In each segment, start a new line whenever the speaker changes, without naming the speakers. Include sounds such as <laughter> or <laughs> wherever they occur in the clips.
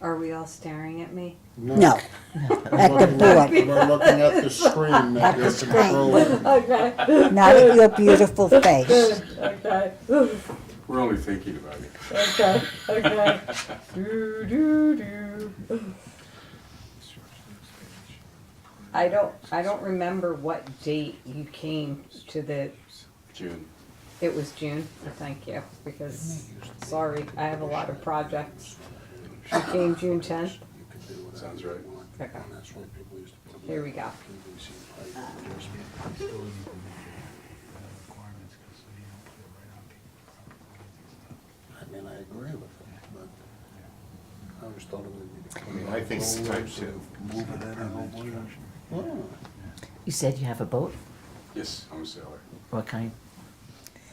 Are we all staring at me?
No, at the board,
We're looking at the screen that
At
you're
the screen.
<laughs>
controlling.
Okay.
not at your beautiful face.
Good, okay, Oof,
We're only thinking about it.
okay, okay. Do, do, do. I don't, I don't remember what date you came to the,
June.
it was June, thank you, because, sorry, I have a lot of projects. You came June tenth,
Sounds right.
okay, Uh. here we go.
I mean, I agree with it, but I always thought it would be.
I mean, I think it's time to-
Move it in and over there. Well,
You said you have a boat?
Yes, I'm a sailor.
What kind?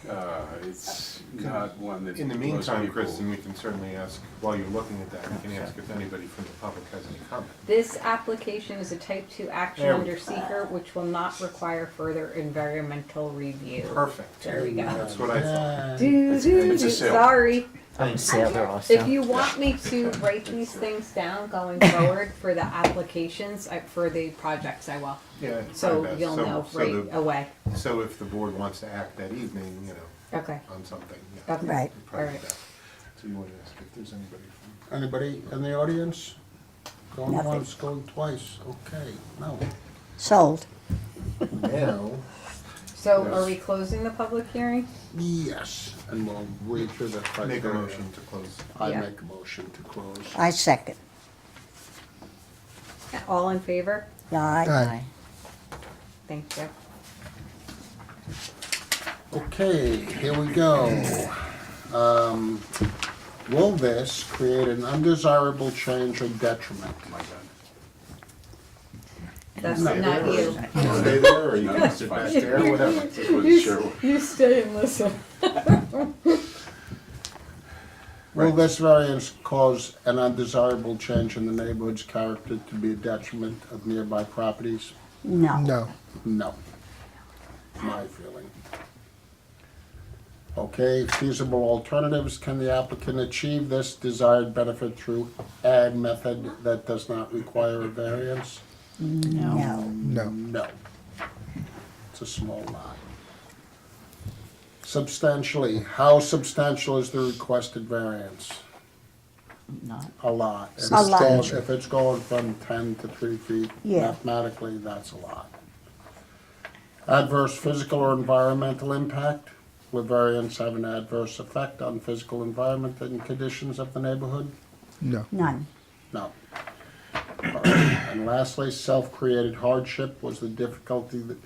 Uh, it's not one that.
In the
most
meantime,
people-
Kristen, we can certainly ask, while you're looking at that, we can ask if anybody from the public has any comment.
This application is a type two action
There we
under
go.
seeker, which will not require further environmental review.
Perfect.
There we go.
That's what I thought.
Do, do,
it's a
do,
sale.
sorry.
I'm a sailor also.
If you want me to write these things down
<laughs>
going forward for the applications, I- for the projects, I will.
Yeah. it's my
So
best.
you'll
So-
know
so
right
the-
away.
So if the board wants to act that evening, you know,
Okay.
on something, yeah.
Okay.
Right.
probably
Alright.
that. So you want to ask if there's anybody from?
Anybody in the audience? Going
Nothing.
once, going twice, okay, no.
Sold.
Now,
So are we closing the public hearing?
yes, and we'll read through the
Make a
criteria.
motion to close.
I
Yeah.
make a motion to close.
I second.
All in favor?
Aye.
Aye.
Thank you.
Okay, here we go. Um, Will this create an undesirable change or detriment?
Oh, My God.
That's not you.
Stay there or you
No,
can
it's
sit
fine.
back there, whatever.
Just wasn't sure.
You stay and listen.
Will this variance cause an undesirable change in the neighborhood's character to be a detriment of nearby properties?
No.
No,
No. My feeling. Okay, feasible alternatives, can the applicant achieve this desired benefit through ad method that does not require a variance?
No.
no,
No. It's a small lot. Substantially, how substantial is the requested variance?
Not.
A lot. If it's
A lot.
going- If it's going from ten to three feet,
Yeah.
mathematically, that's a lot. Adverse physical or environmental impact? Will variance have an adverse effect on physical environment and conditions of the neighborhood?
no,
None.
No. All right, And lastly, self-created hardship was the difficulty that,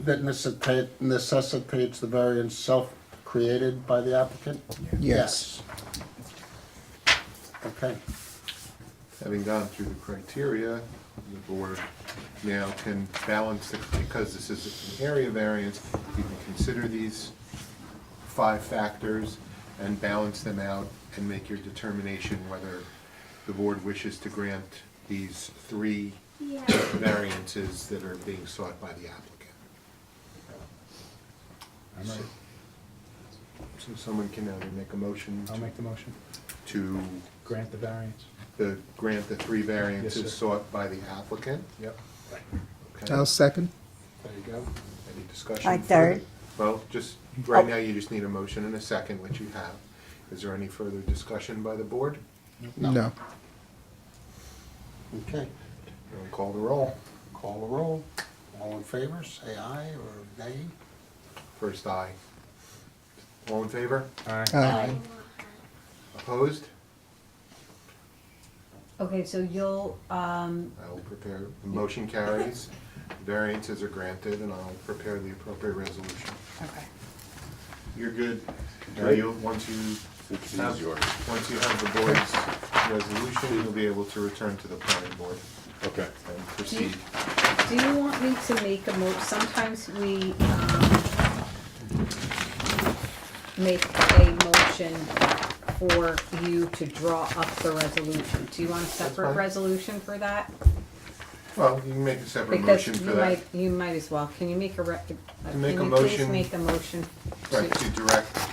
that necessitate, necessitates the variance self-created by the applicant? Yes.
yes.
Okay,
Having gone through the criteria, the board now can balance, the because this is an area variance, you can consider these five factors and balance them out and make your determination whether the board wishes to grant these three variances that are being sought by the applicant. So someone can either make a motion
I'll make the motion.
to
Grant the variance.
the, grant the three
Yes,
variances
sir.
sought by the applicant.
Yep.
Okay,
I'll second.
There you go. Any discussion?
I third.
further? Well, just, right
Oh.
now, you just need a motion and a second, which you have. Is there any further discussion by the board?
No,
okay.
We'll Call the roll.
Call the roll. All in favor, say aye or nay.
First, aye. All in favor?
aye.
Opposed?
Okay, so you'll, um,
I will prepare, the motion carries, variances are granted, and I'll prepare the appropriate resolution.
okay.
You're good. Now
Right.
you, once you
It's
have-
easier.
Once you have the board's resolution, you'll be able to return to the planning board
Okay.
and proceed.
Do you want me to make a mo, sometimes we, um, make a motion for you to draw up the resolution. Do you want a separate
fine.
resolution for that?
Well, you can make a separate
Because
motion
you
for that.
might, you might as well. Can you make a rec, can
make a
you please
motion-
make a motion?
Right,
to-
to direct